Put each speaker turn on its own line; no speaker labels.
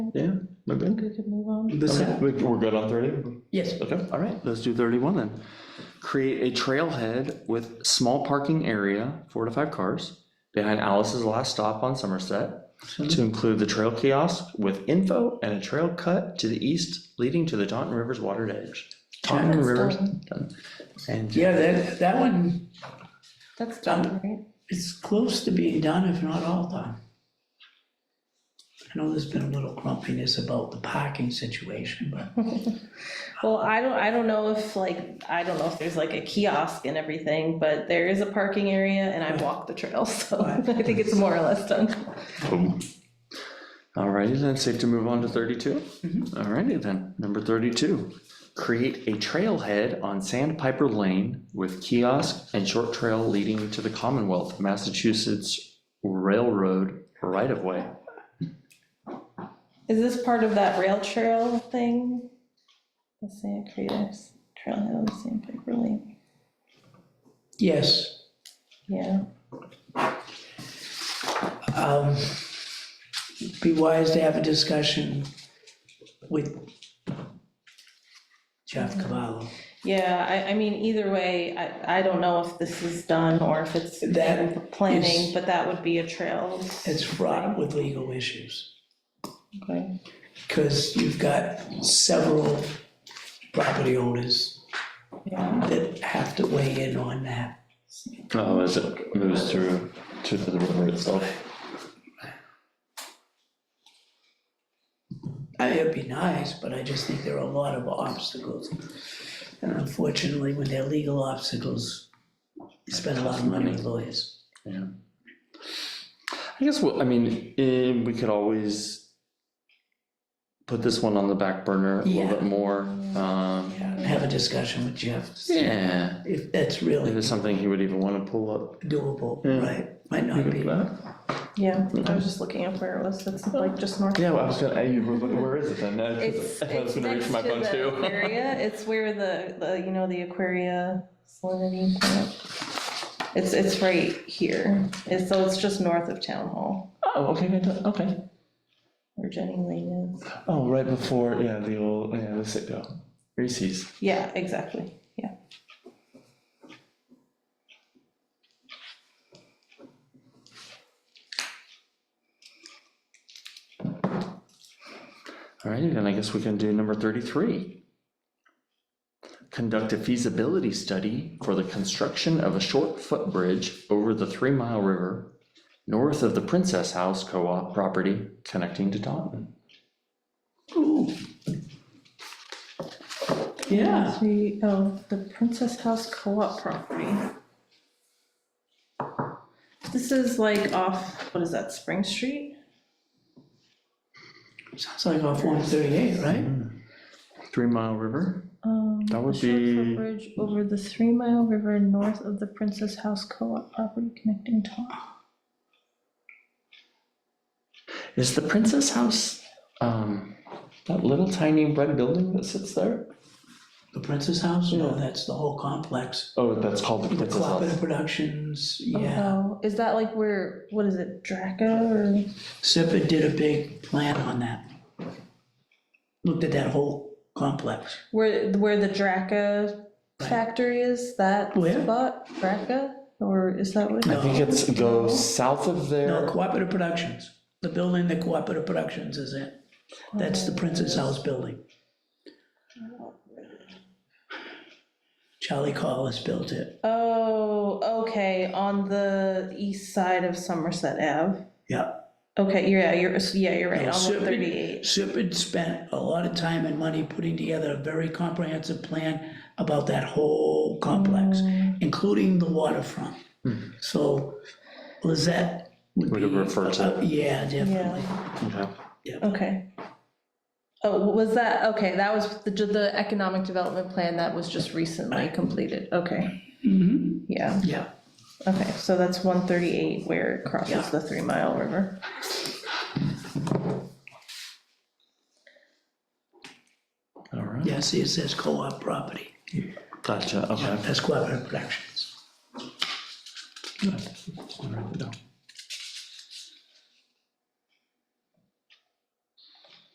Yeah, we're
I think
good.
we could move on.
The
Okay,
sec-
we- We're good on thirty?
Yes.
Okay, all right, let's do thirty-one then. Create a trailhead with small parking area, four to five cars, behind Alice's last stop on Somerset to include the trail kiosk with info and a trail cut to the east leading to the Taunton River's watered edge. Taunton
That's
River's.
done.
And
Yeah, that, that one
That's done, right?
is close to being done, if not all done. I know there's been a little grumpiness about the parking situation, but
Well, I don't, I don't know if like, I don't know if there's like a kiosk and everything, but there is a parking area and I walk the trail, so I think it's more or less done.
Alrighty then, safe to move on to thirty-two?
Mm-hmm.
Alrighty then, number thirty-two. Create a trailhead on Sandpiper Lane with kiosk and short trail leading to the Commonwealth Massachusetts Railroad right-of-way.
Is this part of that rail trail thing? The Sand Creatives Trailhead on the Sandpiper Lane,
yes,
yeah.
um, be wise to have a discussion with Jeff Cavallo.
Yeah, I, I mean, either way, I, I don't know if this is done or if it's in
That
planning,
is-
but that would be a trail.
It's fraught with legal issues.
Okay.
Because you've got several property owners
Yeah,
that have to weigh in on that.
Oh, as it moves through to the river itself.
I- It'd be nice, but I just think there are a lot of obstacles. And unfortunately, when they're legal obstacles, you spend a lot of money with lawyers.
Yeah. I guess, we'll I mean, eh, we could always put this one on the back burner a little
Yeah.
bit more. Um,
Have a discussion with Jeff,
yeah,
if that's
if
really
it's something he would even wanna pull up.
doable,
Yeah.
right? Might not be.
yeah, I was just looking up where it was, it's like just north.
Yeah, well, I was gonna, you were looking, where is it then? I
It's,
was- I was
it's
gonna
next
reach
to
my phone
the
too.
aquaria, it's where the, the, you know, the Aquaria salinity plant. It's, it's right here, it's, so it's just north of Town Hall,
Oh, okay, good, okay.
where Jenny Lane is.
Oh, right before, yeah, the old, yeah, the sit-go, Reese's.
Yeah, exactly, yeah.
All right, then I guess we can do number thirty-three. Conduct a feasibility study for the construction of a short footbridge over the Three Mile River north of the Princess House Co-op property connecting to Taunton.
Ooh. Yeah,
Three, oh, the Princess House Co-op property. This is like off, what is that, Spring Street?
sounds like off one thirty-eight, right?
Hmm. Three Mile River?
Um,
That would
a short
be-
footbridge over the Three Mile River north of the Princess House Co-op property connecting to.
Is the Princess House, um, that little tiny red building that sits there?
The Princess House, no,
Yeah.
that's the whole complex.
Oh, that's called the
The
Princess
Cooperative
House.
Productions, yeah.
Oh, Is that like where, what is it, Draco or?
SIPA did a big plan on that. Looked at that whole complex.
Where, where the Draca factory is, that
Where?
spot, Draca? Or is that what?
I think it's go south of
No,
there.
Cooperative Productions, the building that Cooperative Productions is in. That's
Oh,
the Princess House building. Charlie Collis built it,
Oh, okay, on the east side of Somerset Ave.
yeah.
Okay, you're- yeah, you're, yeah, you're right,
No,
on
Sipid-
138.
Sipid spent a lot of time and money putting together a very comprehensive plan about that whole complex, including the waterfront. So Lizette would
Would
be.
have referred to
uh, Yeah, definitely.
Okay.
Okay. Oh, was that, okay, that was the, the economic development plan that was just recently completed, okay.
Mm-hmm.
Yeah,
Yeah,
okay, so that's 138 where it
Yeah.
crosses the Three Mile River.
All right.
yeah, see, it says co-op property,
Gotcha, okay.
that's cooperative productions.
Good. All right, no.